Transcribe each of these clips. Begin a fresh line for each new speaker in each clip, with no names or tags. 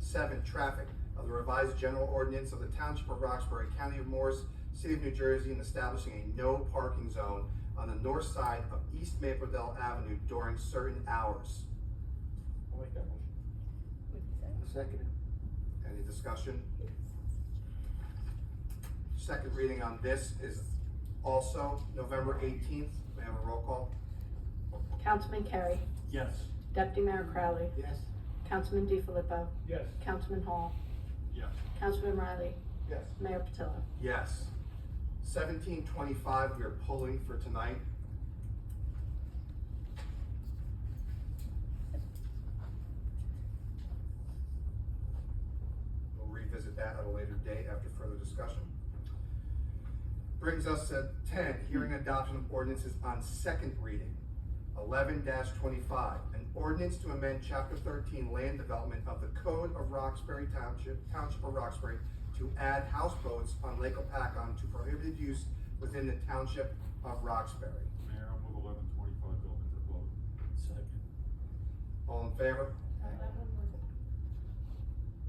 seven, traffic of the revised general ordinance of the Township of Roxbury, County of Morris, City of New Jersey, and establishing a no parking zone on the north side of East Maple Dell Avenue during certain hours.
I'll make that motion.
Second.
Any discussion? Second reading on this is also November eighteenth. May I have a roll call?
Councilman Carey,
Yes.
Deputy Mayor Crowley,
Yes.
Councilman DiFilippo,
Yes.
Councilman Hall,
Yes.
Councilman Riley,
Yes.
Mayor Patillo.
Yes. Seventeen twenty-five, we are pulling for tonight. We'll revisit that at a later date after further discussion. Brings us to ten, hearing adoption of ordinances on second reading. Eleven twenty-five, an ordinance to amend chapter thirteen land development of the Code of Roxbury Township, Township of Roxbury, to add houseboats on Lake Opakon to prohibited use within the Township of Roxbury.
Mayor, I'll move eleven twenty-five to open for public.
Second.
All in favor?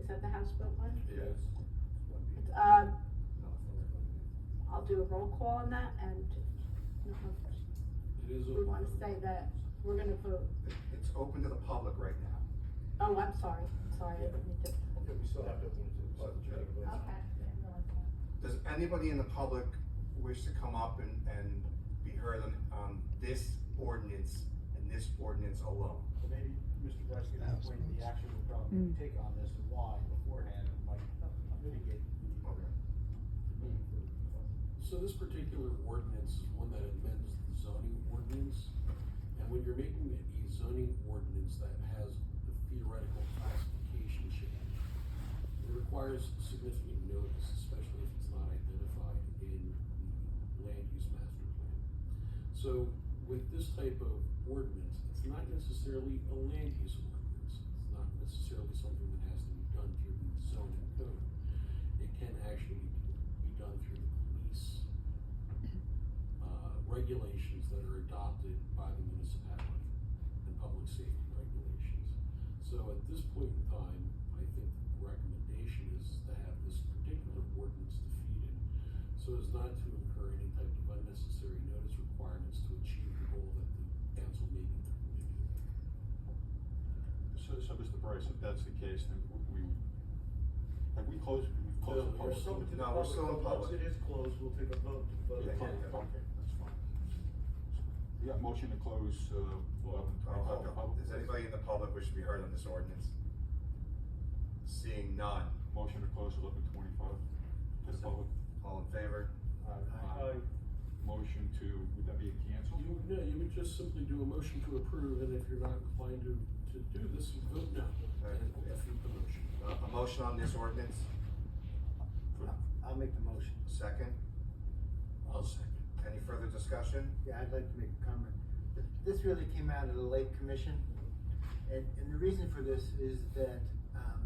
Is that the houseboat one?
Yes.
Uh, I'll do a roll call on that and I don't know
It is
if we want to say that we're gonna vote.
It's open to the public right now.
Oh, I'm sorry, sorry, I didn't mean to.
we still have to.
Does anybody in the public wish to come up and, and be heard on, on this ordinance and this ordinance alone?
Maybe Mr. Bryce can explain the action we'll probably take on this and why beforehand, and like mitigate the
Okay.
need for.
So this particular ordinance is one that amends the zoning ordinance, and when you're making a zoning ordinance that has the theoretical classification change, it requires significant notice, especially if it's not identified in the land use master plan. So with this type of ordinance, it's not necessarily a land use ordinance, it's not necessarily something that has to be done through the zoning code. It can actually be be done through the police, uh, regulations that are adopted by the municipality and public safety regulations. So at this point in time, I think the recommendation is to have this particular ordinance defeated so as not to incur any type of unnecessary notice requirements to achieve the goal that the council may be committed.
So, so Mr. Bryce, if that's the case, then w- we, have we closed, we've closed the
No, we're
public?
still-
No, we're still in
Once it
public.
is closed, we'll take a vote to vote.
Yeah,
it
yeah,
down.
yeah, okay, that's fine. We got motion to close, uh, eleven
Oh,
twenty-five
hold
to
on.
public.
Does anybody in the public wish to be heard on this ordinance? Seeing none,
Motion to close eleven twenty-five to the public.
all in favor?
Aye.
Motion to, would that be a cancel?
You, no, you would just simply do a motion to approve, and if you're not inclined to, to do this, you vote no, and defeat the motion.
Uh, A motion on this ordinance,
I'll make the motion.
second?
I'll second.
Any further discussion?
Yeah, I'd like to make a comment. Th- This really came out of the Lake Commission. And, and the reason for this is that, um,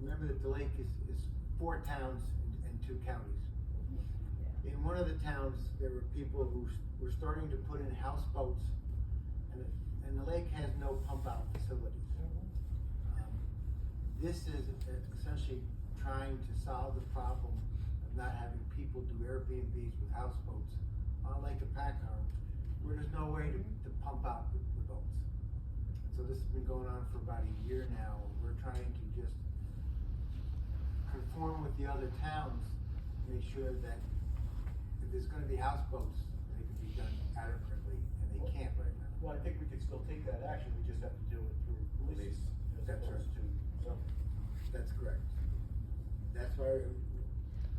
remember that the lake is, is four towns and- and two counties. In one of the towns, there were people who s- were starting to put in houseboats and, the- and the lake has no pump out facilities. Um, This is uh, essentially trying to solve the problem of not having people do Airbnbs with houseboats on Lake Apacar, where there's no way to, to pump out the, the boats. So this has been going on for about a year now, we're trying to just conform with the other towns, make sure that if there's gonna be houseboats, they can be done adequately, and they can't right now.
Well, I think we can still take that action, we just have to do it through police
Police.
as
That's
opposed to zoning.
That's correct. That's why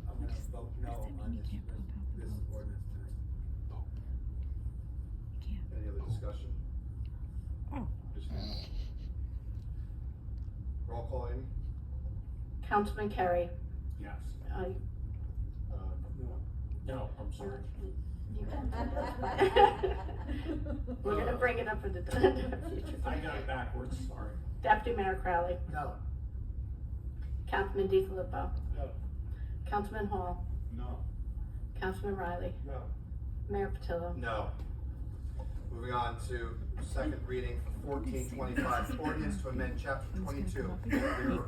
I'm gonna vote no on this, this ordinance tonight.
Any other discussion?
Just now.
Roll call, Amy?
Councilman Carey,
Yes.
uh,
Uh,
No.
No, I'm sorry.
we're gonna bring it up for the future.
I got it backwards, sorry.
Deputy Mayor Crowley,
No,
Councilman DiFilippo,
No,
Councilman Hall,
No.
Councilman Riley,
no.
Mayor Patillo.
No. Moving on to second reading, fourteen twenty-five, ordinance to amend chapter twenty-two, rear